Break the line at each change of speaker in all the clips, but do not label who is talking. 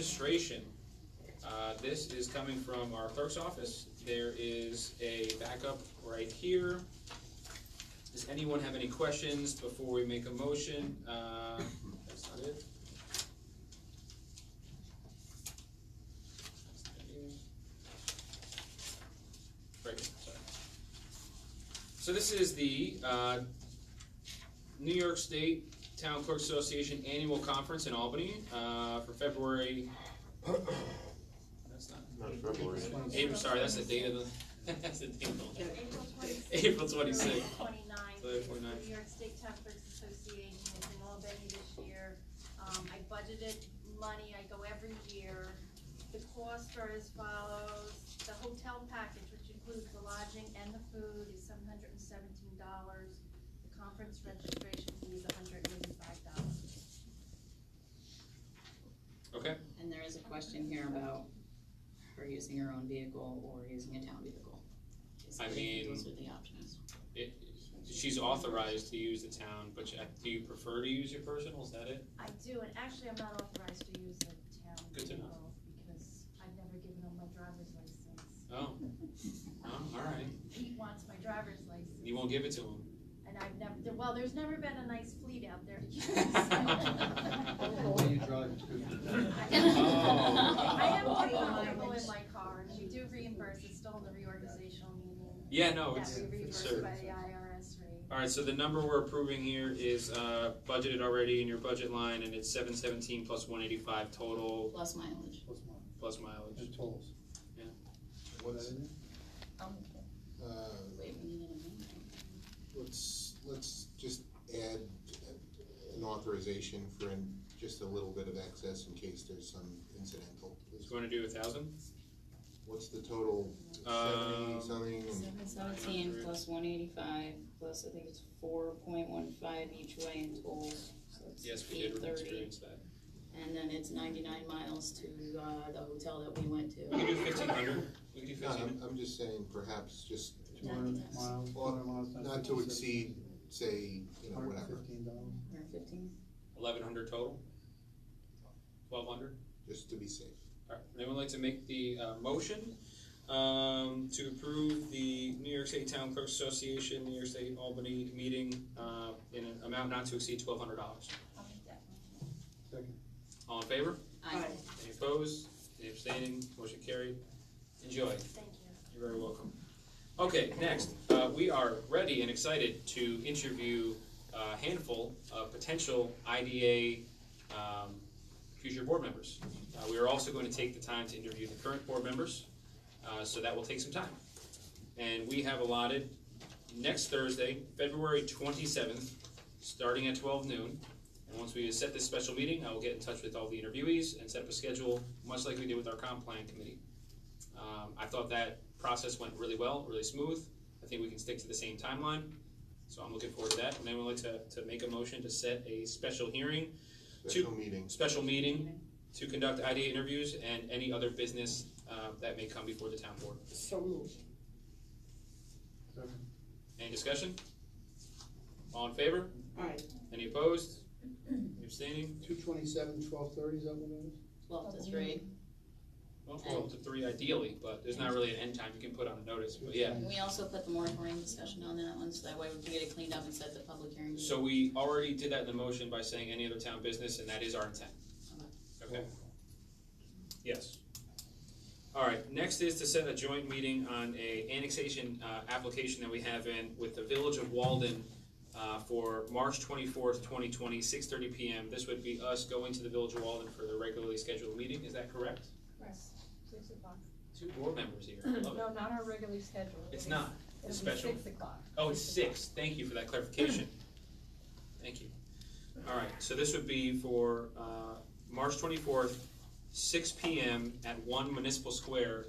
Registration, uh, this is coming from our clerk's office. There is a backup right here. Does anyone have any questions before we make a motion? Uh, that's not it. That's not it. Right, here, sorry. So this is the, uh, New York State Town Clerks Association Annual Conference in Albany, uh, for February. That's not,
Not February.
April, sorry, that's the date of the, that's the date of the,
April twenty-sixth.
April twenty-sixth.
Twenty-ninth.
February 29th.
New York State Town Clerks Association is in Albany this year. Um, I budgeted money, I go every year. The costs are as follows, the hotel package, which includes the lodging and the food, is seven hundred and seventeen dollars. The conference registration fee is hundred and eighty-five dollars.
Okay,
And there is a question here about her using her own vehicle or using a town vehicle.
I mean-
Those are the options.
it, she's authorized to use the town, but you- do you prefer to use your personal, is that it?
I do, and actually, I'm not authorized to use the town
Good to know.
vehicle because I've never given him my driver's license.
Oh, oh, alright,
Pete wants my driver's license.
you won't give it to him.
And I've never, there- well, there's never been a nice fleet out there.
What do you drive to?
Oh.
I am more comfortable in my car, and we do reimburse, it's still in the reorganizational meeting.
Yeah, no,
That
Oh, it's,
we
it's
reimburse
certain.
by the IRS rate.
Alright, so the number we're approving here is, uh, budgeted already in your budget line, and it's seven seventeen plus one eighty-five total,
Plus mileage.
What's mine?
plus mileage.
And tolls.
Yeah.
What is it?
Um,
Uh,
wait, we need an amendment.
Let's, let's just add an authorization for an- just a little bit of excess in case there's some incidental.
Do you wanna do a thousand?
What's the total?
Um,
Seventy something?
Seven seventeen plus one eighty-five, plus I think it's four point one five each way in tolls, so
Yes,
it's
we did
eight thirty.
experience that.
And then it's ninety-nine miles to, uh, the hotel that we went
We can
to.
do fifteen hundred, we can do
No,
fifteen hundred.
I'm, I'm just saying perhaps just
Two hundred miles, two hundred miles. times
not to
56,
exceed, say, you know, whatever,
$115.
Or fifteen,
Eleven hundred total? Twelve hundred?
just to be safe.
Alright, would anyone like to make the, uh, motion, um, to approve the New York State Town Clerks Association, New York State Albany meeting, uh, in an amount not to exceed twelve hundred dollars?
I'll make that motion.
Second.
All in favor?
I,
Any opposed? Any abstaining? Motion carried. Enjoy.
Thank you.
You're very welcome. Okay, next, uh, we are ready and excited to interview uh, a handful of potential IDA um, future board members. Uh, we are also going to take the time to interview the current board members, uh, so that will take some time. And we have allotted next Thursday, February twenty-seventh, starting at twelve noon. And once we set this special meeting, I will get in touch with all the interviewees and set up a schedule, much like we did with our comp plan committee. Um, I thought that process went really well, really smooth. I think we can stick to the same timeline, so I'm looking forward to that. And then we'd like to, to make a motion to set a special hearing,
Special meeting,
special meeting to conduct IDA interviews and any other business, uh, that may come before the town board.
So moved.
Second.
Any discussion? All in favor?
Aye.
Any opposed? Any Abstaining?
Two twenty-seven, twelve thirty, is that what it is?
twelve to three.
Well, twelve to three ideally, but there's not really an end time you can put on a notice, but yeah.
We also put the moratorium discussion on that one, so that way we can get it cleaned up and set the public hearing.
So we already did that in the motion by saying any other town business, and that is our intent. Okay? Yes. All right, next is to set a joint meeting on a annexation, uh, application that we have in with the Village of Walden, uh, for March twenty-fourth, twenty twenty, six thirty PM. This would be us going to the Village of Walden for the regularly scheduled meeting, is that correct?
Yes, six o'clock.
Two board members here, I love
No,
it.
not our regularly schedule.
It's not,
It'll be
special.
Six o'clock.
Oh, it's six, thank you for that clarification. Thank you. All right, so this would be for, uh, March twenty-fourth, six P M at One Municipal Square,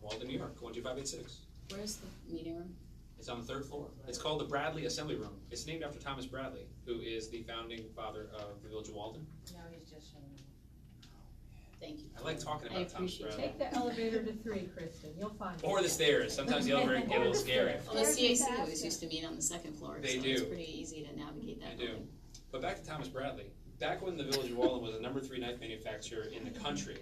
Walden, New York, one two five eight six.
Where's the meeting room?
It's on the third floor. It's called the Bradley Assembly Room. It's named after Thomas Bradley, who is the founding father of the Village of Walden.
No, he's just showing
Thank you.
I like talking
I
about Thomas
appreciate
Bradley.
Take the elevator to three, Kristen, you'll find it.
Or the stairs, sometimes the elevator can get a little scary.
Well, Oh, the
There's a
CAC always
basket.
used to meet on the second floor, so
They
it's
do.
pretty easy to navigate that
They do.
building.
But back to Thomas Bradley, back when the village of Walden was a number three knife manufacturer in the country,